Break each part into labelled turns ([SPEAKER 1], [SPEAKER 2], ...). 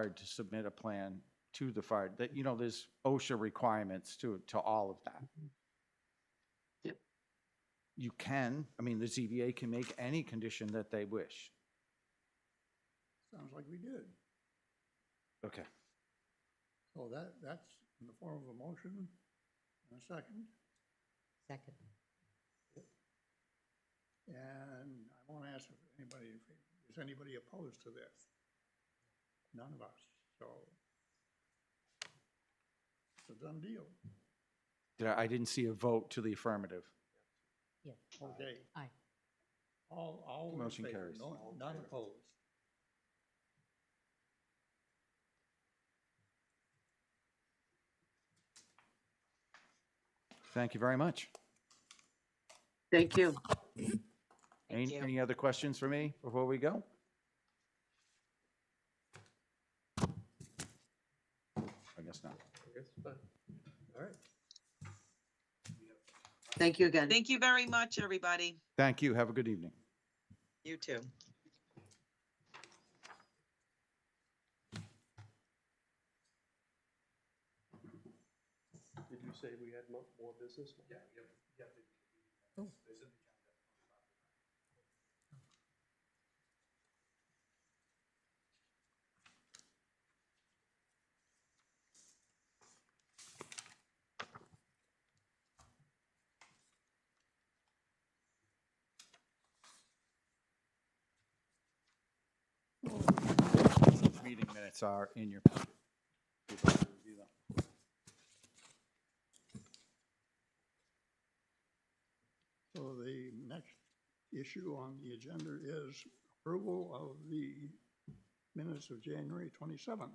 [SPEAKER 1] required to submit a plan to the fire, that, you know, there's OSHA requirements to, to all of that.
[SPEAKER 2] Yep.
[SPEAKER 1] You can, I mean, the ZBA can make any condition that they wish.
[SPEAKER 3] Sounds like we did.
[SPEAKER 1] Okay.
[SPEAKER 3] So that, that's in the form of a motion and a second.
[SPEAKER 4] Second.
[SPEAKER 3] And I won't ask if anybody, is anybody opposed to this? None of us, so it's a done deal.
[SPEAKER 1] Did I, I didn't see a vote to the affirmative.
[SPEAKER 4] Yes.
[SPEAKER 3] Okay.
[SPEAKER 4] Aye.
[SPEAKER 3] All, all in
[SPEAKER 1] Motion
[SPEAKER 3] favor,
[SPEAKER 1] carries.
[SPEAKER 3] no- none opposed.
[SPEAKER 1] Thank you very much.
[SPEAKER 2] Thank you.
[SPEAKER 1] Any, any other questions for me before we go? I guess not.
[SPEAKER 3] All right.
[SPEAKER 2] Thank you again.
[SPEAKER 5] Thank you very much, everybody.
[SPEAKER 1] Thank you. Have a good evening.
[SPEAKER 5] You too.
[SPEAKER 6] Did you say we had mo- more business? Yeah, yeah,
[SPEAKER 1] Meeting minutes are in your.
[SPEAKER 3] So the next issue on the agenda is approval of the minutes of January twenty-seventh.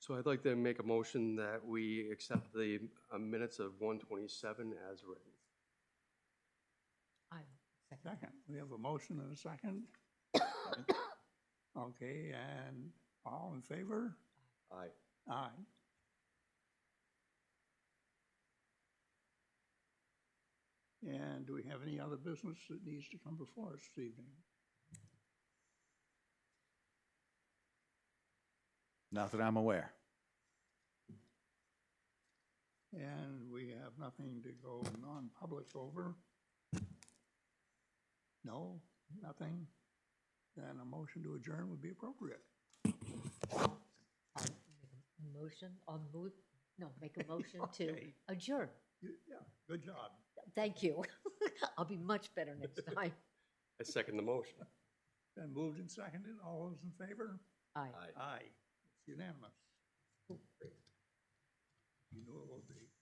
[SPEAKER 6] So I'd like to make a motion that we accept the uh, minutes of one twenty-seven as written.
[SPEAKER 4] Aye. Second.
[SPEAKER 3] Second, we have a motion and a second. Okay, and all in favor?
[SPEAKER 6] Aye.
[SPEAKER 3] Aye. And do we have any other business that needs to come before us this evening?
[SPEAKER 1] Not that I'm aware.
[SPEAKER 3] And we have nothing to go non-public over? No, nothing? Then a motion to adjourn would be appropriate.
[SPEAKER 4] I'll uh, make a Motion, I'll move, no, make a motion to
[SPEAKER 3] Okay.
[SPEAKER 4] adjourn.
[SPEAKER 3] You- Yeah, good job.
[SPEAKER 4] Thank you. I'll be much better next time.
[SPEAKER 6] I second the motion.
[SPEAKER 3] Then moved and seconded, all those in favor?
[SPEAKER 4] Aye.
[SPEAKER 3] Aye. It's unanimous. You know it will be.